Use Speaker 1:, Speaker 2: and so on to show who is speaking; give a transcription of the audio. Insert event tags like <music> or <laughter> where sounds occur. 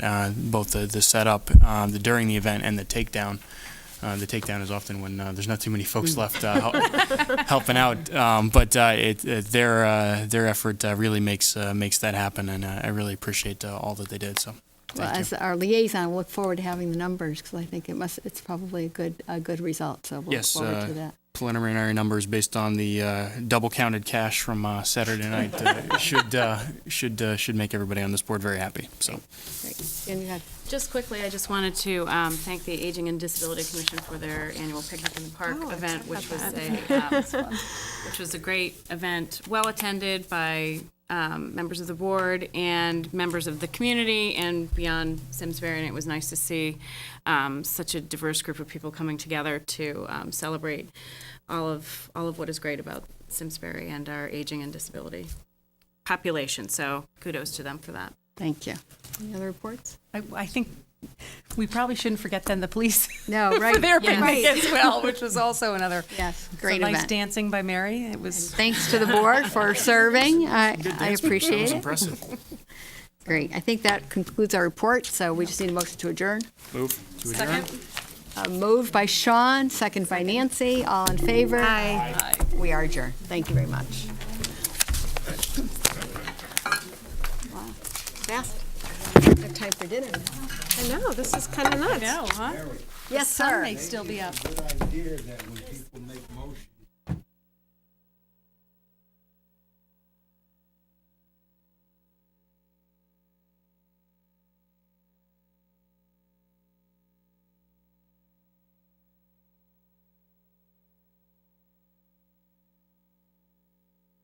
Speaker 1: uh, both the, the setup, um, the during the event and the takedown. Uh, the takedown is often when uh, there's not too many folks left uh, hel- <laughs> helping out, um, but uh, it, it, their uh, their effort uh, really makes uh, makes that happen, and uh, I really appreciate uh, all that they did. So,
Speaker 2: Well,
Speaker 1: thank you.
Speaker 2: as our liaison, we'll look forward to having the numbers because I think it must, it's probably a good, a good result. So we'll look
Speaker 1: Yes,
Speaker 2: forward
Speaker 1: uh,
Speaker 2: to that.
Speaker 1: preliminary numbers based on the uh, double counted cash from uh, Saturday night <laughs> uh, should uh, should uh, should make everybody on this board very happy. So
Speaker 2: Great. And you had,
Speaker 3: Just quickly, I just wanted to um, thank the Aging and Disability Commission for their annual Picnic in the Park
Speaker 2: Oh, I
Speaker 3: event,
Speaker 2: forgot
Speaker 3: which was
Speaker 2: about
Speaker 3: a, um, which was a great event, well-attended by um, members of the board and members of the community and beyond Simsbury, and it was nice to see um, such a diverse group of people coming together to um, celebrate all of, all of what is great about Simsbury and our aging and disability population, so kudos to them for that.
Speaker 2: thank you. Any other reports?
Speaker 4: I, I think we probably shouldn't forget then the police <laughs>
Speaker 2: No, right.
Speaker 4: for their
Speaker 2: yes,
Speaker 4: picnic as well, which was also another
Speaker 2: Yes,
Speaker 4: so
Speaker 2: great
Speaker 4: nice
Speaker 2: event.
Speaker 4: dancing by Mary. It was
Speaker 2: Thanks to the board
Speaker 1: <laughs>
Speaker 2: for serving. I, I
Speaker 1: that was
Speaker 2: appreciate it.
Speaker 1: impressive.
Speaker 2: <laughs> Great. I think that concludes our report. So we just need a motion to adjourn.
Speaker 1: Move to adjourn.
Speaker 2: Uh, Moved by Sean, second by Nancy. All in favor? Aye. We are adjourned. Thank you very much. Wow, Fast. We have time for dinner.
Speaker 5: I know, this is kind of nuts.
Speaker 4: no, huh?
Speaker 2: Yes,
Speaker 4: Sun
Speaker 2: sir.
Speaker 4: may still be up.
Speaker 6: good idea that we